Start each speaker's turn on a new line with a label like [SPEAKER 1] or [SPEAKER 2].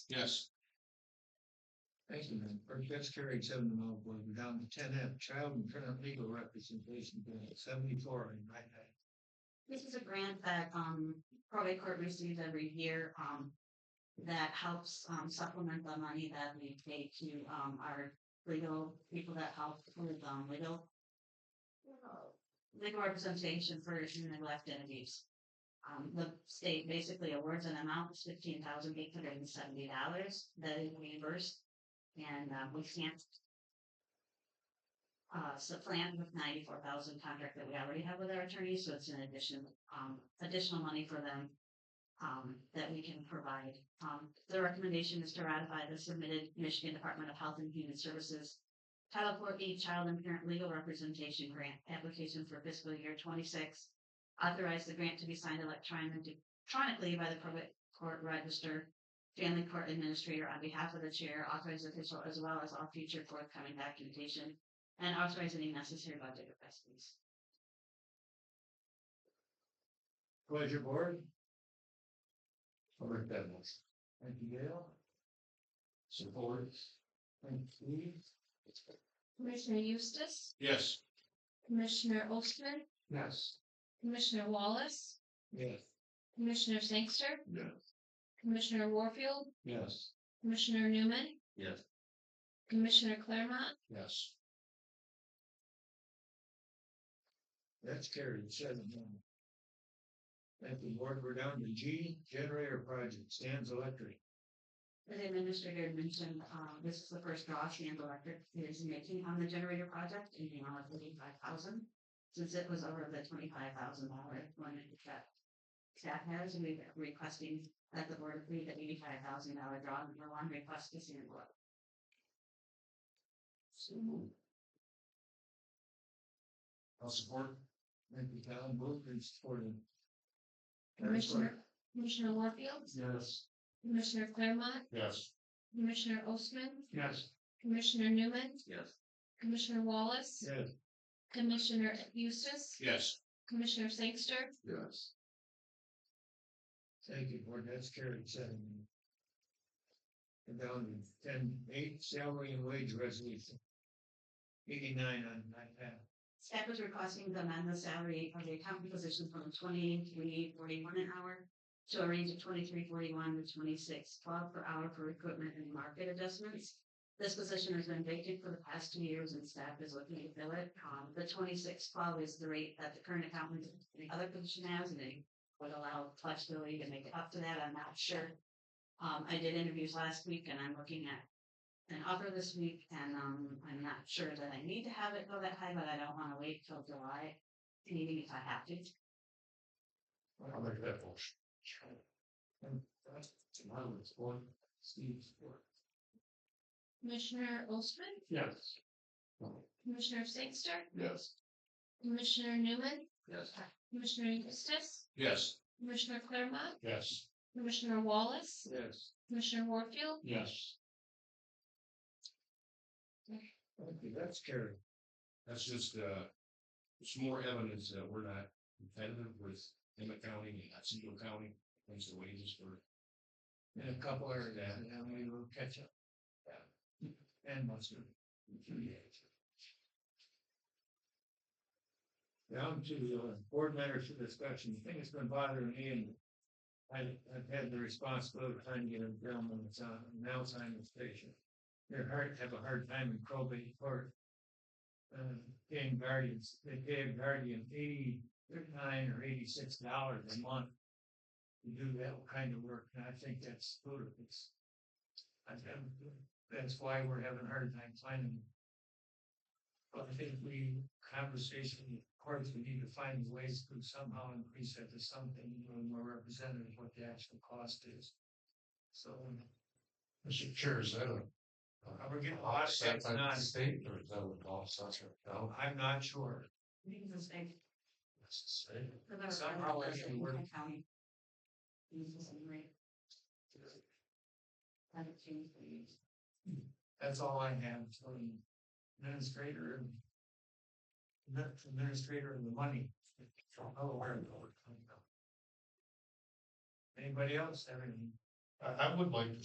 [SPEAKER 1] Yes. Thank you, Madam Clerk. That's carried seven to no vote. We're down to ten F, child and parent legal representation bill seventy-four and nine A.
[SPEAKER 2] This is a grant that um probate court receives every year um that helps um supplement the money that we pay to um our legal people that help with um legal legal representation for issue neglect entities. Um, the state basically awards an amount of fifteen thousand eight hundred and seventy dollars that is reimbursed and uh, we can't uh, supplant with ninety-four thousand contract that we already have with our attorney, so it's an addition, um, additional money for them um, that we can provide. Um, the recommendation is to ratify the submitted Michigan Department of Health and Human Services Title 4E Child and Parent Legal Representation Grant application for fiscal year twenty-six. Authorize the grant to be signed electronically electronically by the probate court register, family court administrator on behalf of the chair, authorized official, as well as all future forthcoming documentation, and authorize any necessary budget adjustments.
[SPEAKER 1] Pleasure, board. I'll make that motion. Thank you, Gail. Support. Thank you.
[SPEAKER 3] Commissioner Eustace,
[SPEAKER 1] Yes.
[SPEAKER 3] Commissioner Ostman,
[SPEAKER 1] Yes.
[SPEAKER 3] Commissioner Wallace,
[SPEAKER 1] Yes.
[SPEAKER 3] Commissioner Sangster,
[SPEAKER 1] Yes.
[SPEAKER 3] Commissioner Warfield,
[SPEAKER 1] Yes.
[SPEAKER 3] Commissioner Newman,
[SPEAKER 1] Yes.
[SPEAKER 3] Commissioner Claremont,
[SPEAKER 1] Yes. That's carried seven one. At the board, we're down to G, generator project, stands electric.
[SPEAKER 2] The administrator mentioned, um, this is the first draw Sand Electric is making on the generator project in the amount of eighty-five thousand. Since it was over the twenty-five thousand dollar limit that staff has, we are requesting that the board approve the eighty-five thousand dollar draw number one request to Sand Electric.
[SPEAKER 1] I'll support. Thank you, Cal, moved and supported.
[SPEAKER 3] Commissioner, Commissioner Warfield,
[SPEAKER 1] Yes.
[SPEAKER 3] Commissioner Claremont,
[SPEAKER 1] Yes.
[SPEAKER 3] Commissioner Ostman,
[SPEAKER 1] Yes.
[SPEAKER 3] Commissioner Newman,
[SPEAKER 1] Yes.
[SPEAKER 3] Commissioner Wallace,
[SPEAKER 1] Yes.
[SPEAKER 3] Commissioner Eustace,
[SPEAKER 1] Yes.
[SPEAKER 3] Commissioner Sangster,
[SPEAKER 1] Yes. Thank you, board, that's carried seven. And down to ten, eight, salary and wage resolution. Eighty-nine on nine half.
[SPEAKER 2] Staff is requesting to amend the salary of the accountant position from twenty-three forty-one an hour to a range of twenty-three forty-one to twenty-six twelve per hour for equipment and market adjustments. This position has been vacant for the past two years and staff is looking to fill it. Um, the twenty-six twelve is the rate that the current accountant and the other position has and it would allow flexibility to make it up to that. I'm not sure. Um, I did interviews last week and I'm looking at an offer this week, and um, I'm not sure that I need to have it go that high, but I don't want to wait till July meeting if I have to.
[SPEAKER 1] I'll make that motion. And that's my list, one, Steve's four.
[SPEAKER 3] Commissioner Ostman,
[SPEAKER 1] Yes.
[SPEAKER 3] Commissioner Sangster,
[SPEAKER 1] Yes.
[SPEAKER 3] Commissioner Newman,
[SPEAKER 1] Yes.
[SPEAKER 3] Commissioner Eustace,
[SPEAKER 1] Yes.
[SPEAKER 3] Commissioner Claremont,
[SPEAKER 1] Yes.
[SPEAKER 3] Commissioner Wallace,
[SPEAKER 1] Yes.
[SPEAKER 3] Commissioner Warfield,
[SPEAKER 1] Yes. Okay, that's carried.
[SPEAKER 4] That's just, uh, it's more evidence that we're not competitive with Emmett County and Otsego County, things the wages for.
[SPEAKER 1] In a couple areas, and then we will catch up. And mustard. Down to uh, board matters for discussion. The thing that's been bothering me and I, I've had the responsibility of trying to get a gentleman that's on an Alzheimer's patient. They're hard, have a hard time in probate court. Uh, paying guardians, they pay a guardian eighty-nine or eighty-six dollars a month to do that kind of work, and I think that's ludicrous. I think that's why we're having a hard time finding. But I think we, conversation, of course, we need to find ways to somehow increase that to something a little more representative of what the actual cost is. So.
[SPEAKER 4] Mr. Chair, is that a?
[SPEAKER 1] We're getting lost, that's not,
[SPEAKER 4] state or is that a law such a? No,
[SPEAKER 1] I'm not sure.
[SPEAKER 2] Because they-
[SPEAKER 4] that's the same.
[SPEAKER 2] the better
[SPEAKER 1] Somehow I
[SPEAKER 2] part of it is
[SPEAKER 1] can
[SPEAKER 2] in
[SPEAKER 1] work.
[SPEAKER 2] the county. Use the same rate. Haven't changed the use.
[SPEAKER 1] That's all I have for the administrator and. the Administrator and the money. Don't know where it would come from. Anybody else have any?
[SPEAKER 4] I, I would like to